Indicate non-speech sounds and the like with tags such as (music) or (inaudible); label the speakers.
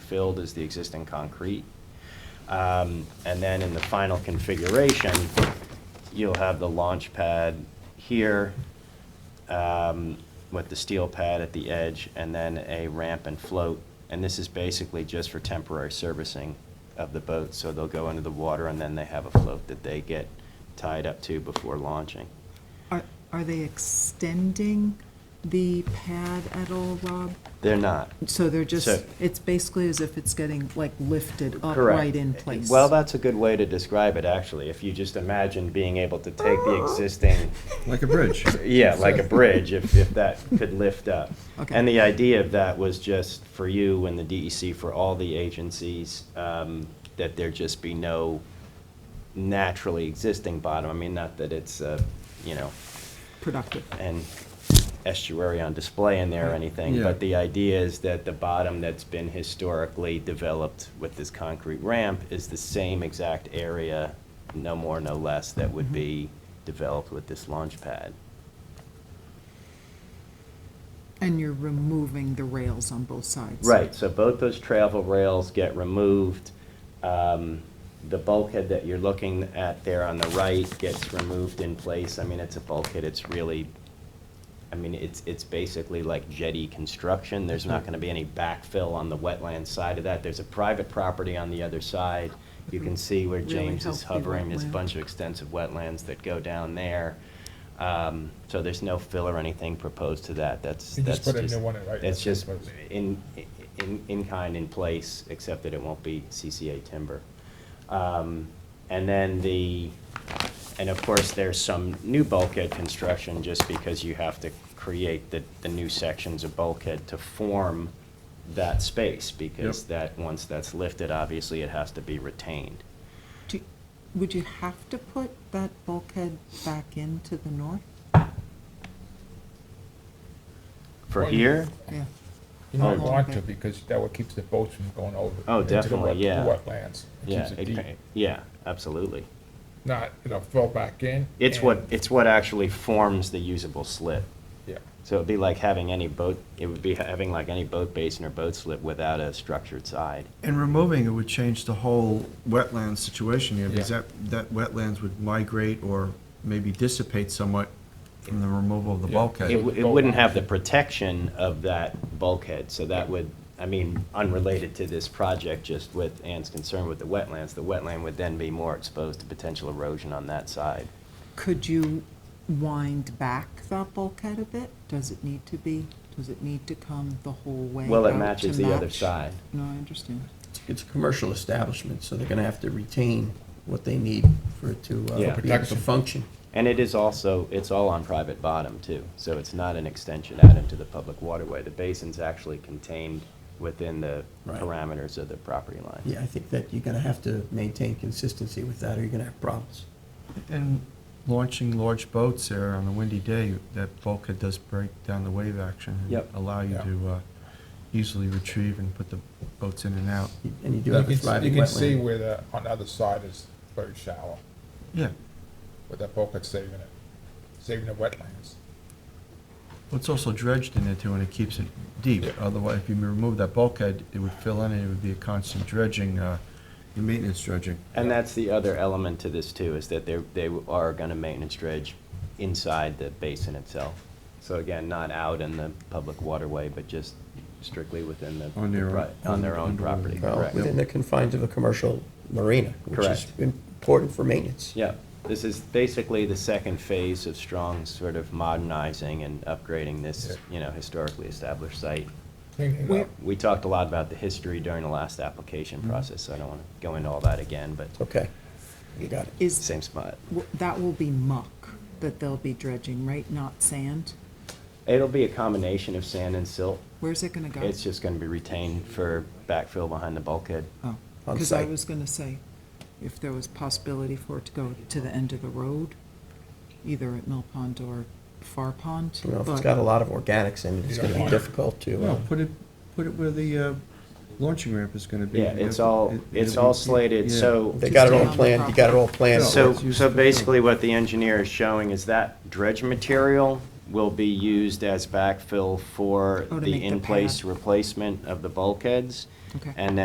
Speaker 1: filled is the existing concrete. Um, And then in the final configuration, you'll have the launch pad here um, with the steel pad at the edge, and then a ramp and float. And this is basically just for temporary servicing of the boat, so they'll go into the water, and then they have a float that they get tied up to before launching.
Speaker 2: Are, are they extending the pad at all, Rob?
Speaker 1: They're not.
Speaker 2: So they're just,
Speaker 1: So-
Speaker 2: it's basically as if it's getting like lifted up
Speaker 1: Correct.
Speaker 2: right in place?
Speaker 1: Well, that's a good way to describe it, actually. If you just imagine being able to take the existing
Speaker 3: Like a
Speaker 4: (laughs)
Speaker 3: bridge.
Speaker 1: Yeah, like a bridge, if, if that could lift up.
Speaker 2: Okay.
Speaker 1: And the idea of that was just for you and the DEC, for all the agencies, um, that there just be no naturally existing bottom. I mean, not that it's, uh, you know,
Speaker 2: Productive.
Speaker 1: an estuary on display in there or anything,
Speaker 3: Yeah.
Speaker 1: but the idea is that the bottom that's been historically developed with this concrete ramp is the same exact area, no more, no less, that would be developed with this launch pad.
Speaker 2: And you're removing the rails on both sides?
Speaker 1: Right, so both those travel rails get removed. Um, The bulkhead that you're looking at there on the right gets removed in place. I mean, it's a bulkhead, it's really, I mean, it's, it's basically like jetty construction. There's not gonna be any backfill on the wetland side of that. There's a private property on the other side. You can see where
Speaker 2: Really
Speaker 1: James is
Speaker 2: healthy
Speaker 1: hovering, there's a
Speaker 2: wetland.
Speaker 1: bunch of extensive wetlands that go down there. Um, So there's no fill or anything proposed to that, that's,
Speaker 4: You
Speaker 1: that's
Speaker 4: just
Speaker 1: just.
Speaker 4: put a new one in, right?
Speaker 1: That's
Speaker 4: That's
Speaker 1: just
Speaker 4: what it
Speaker 1: in, in, in kind, in place, except that it won't be CCA timber. Um, And then the, and of course, there's some new bulkhead construction, just because you have to create the, the new sections of bulkhead to form that space, because
Speaker 3: Yep.
Speaker 1: that, once that's lifted, obviously, it has to be retained.
Speaker 2: Do- Would you have to put that bulkhead back into the north?
Speaker 1: For
Speaker 4: Well, you-
Speaker 1: here,
Speaker 2: Yeah.
Speaker 4: You don't
Speaker 2: Oh.
Speaker 4: want to, because that what keeps the boats from going over.
Speaker 1: Oh,
Speaker 4: into the
Speaker 1: definitely,
Speaker 4: wet-
Speaker 1: yeah.
Speaker 4: Wetlands. It
Speaker 1: yeah,
Speaker 4: keeps it
Speaker 1: it-
Speaker 4: deep.
Speaker 1: yeah, absolutely.
Speaker 4: Not, you know, fill back in.
Speaker 1: It's
Speaker 4: and-
Speaker 1: what, it's what actually forms the usable slit.
Speaker 4: Yeah,
Speaker 1: So it'd be like having any boat, it would be having like any boat basin or boat slip without a structured side.
Speaker 3: And removing it would change the whole wetland situation here, because
Speaker 4: Yeah.
Speaker 3: that, that wetlands would migrate or maybe dissipate somewhat from the removal of the
Speaker 4: Yeah.
Speaker 1: It,
Speaker 3: bulkhead.
Speaker 1: w- it wouldn't have the protection of that bulkhead, so that would, I mean, unrelated to this project, just with Ann's concern with the wetlands, the wetland would then be more exposed to potential erosion on that side.
Speaker 2: Could you wind back that bulkhead a bit? Does it need to be, does it need to come the whole way?
Speaker 1: Well, it
Speaker 2: out to
Speaker 1: matches the other
Speaker 2: match?
Speaker 1: side.
Speaker 2: No, I understand.
Speaker 5: It's a commercial establishment, so they're gonna have to retain what they need for it to,
Speaker 1: Yeah.
Speaker 5: uh, be able to
Speaker 4: Protection.
Speaker 5: function.
Speaker 1: And it is also, it's all on private bottom too, so it's not an extension out into the public waterway. The basin's actually contained within the
Speaker 5: Right.
Speaker 1: parameters of the property line.
Speaker 5: Yeah, I think that you're gonna have to maintain consistency with that, or you're gonna have problems.
Speaker 3: And launching large boats there on a windy day, that bulkhead does break down the wave action. and
Speaker 5: Yep.
Speaker 3: Allow you
Speaker 4: Yeah.
Speaker 3: to uh, easily retrieve and put the boats in and out.
Speaker 5: And you do
Speaker 4: You
Speaker 5: have
Speaker 4: can,
Speaker 5: a
Speaker 4: s- you
Speaker 5: thriving
Speaker 4: can see
Speaker 5: wetland.
Speaker 4: where the, on the other side is very shallow,
Speaker 3: Yeah,
Speaker 4: with that bulkhead saving it, saving the wetlands.
Speaker 3: Well, it's also dredged in there too, and it keeps it deep.
Speaker 4: Yeah.
Speaker 3: Otherwise, if you remove that bulkhead, it would fill in, and it would be a constant dredging, uh, maintenance dredging.
Speaker 1: And that's the other element to this too, is that they're, they are gonna maintenance dredge inside the basin itself. So again, not out in the public waterway, but just strictly within the.
Speaker 3: On their
Speaker 1: the pri- On their own
Speaker 3: own-
Speaker 1: property,
Speaker 5: Well,
Speaker 1: correct.
Speaker 5: within the confines of a commercial marina, which is
Speaker 1: Correct.
Speaker 5: important for maintenance.
Speaker 1: Yeah, this is basically the second phase of Strong's sort of modernizing and upgrading this, you know, historically established site.
Speaker 4: Cleaning it
Speaker 2: Where-
Speaker 4: up.
Speaker 1: We talked a lot about the history during the last application process, so I don't wanna go into all that again, but
Speaker 5: Okay, you got it.
Speaker 2: Is,
Speaker 1: same spot.
Speaker 2: w- that will be muck that they'll be dredging, right? Not sand?
Speaker 1: It'll be a combination of sand and silt.
Speaker 2: Where's it gonna go?
Speaker 1: It's just gonna be retained for backfill behind the bulkhead.
Speaker 2: Oh,
Speaker 5: On
Speaker 2: because I
Speaker 5: site.
Speaker 2: was gonna say, if there was possibility for it to go to the end of the road, either at Mill Pond or Far Pond,
Speaker 5: You know, if it's
Speaker 2: but-
Speaker 5: got a lot of organics in it, it's
Speaker 4: You don't
Speaker 5: gonna be
Speaker 4: want it.
Speaker 5: difficult to, uh,
Speaker 3: No, put it, put it where the uh, launching ramp is gonna be.
Speaker 1: Yeah, it's all,
Speaker 3: It-
Speaker 1: it's
Speaker 3: it'll be-
Speaker 1: all slated,
Speaker 3: yeah.
Speaker 1: so.
Speaker 5: they got it
Speaker 2: Just
Speaker 5: all
Speaker 2: down the
Speaker 5: planned, you got it all planned.
Speaker 1: So,
Speaker 3: it's used
Speaker 1: so
Speaker 3: for-
Speaker 1: basically what the engineer is showing is that dredge material will be used as backfill for
Speaker 2: Oh, to make
Speaker 1: the
Speaker 2: the
Speaker 1: in-place
Speaker 2: pad.
Speaker 1: replacement of the bulkheads.
Speaker 2: Okay.
Speaker 1: And then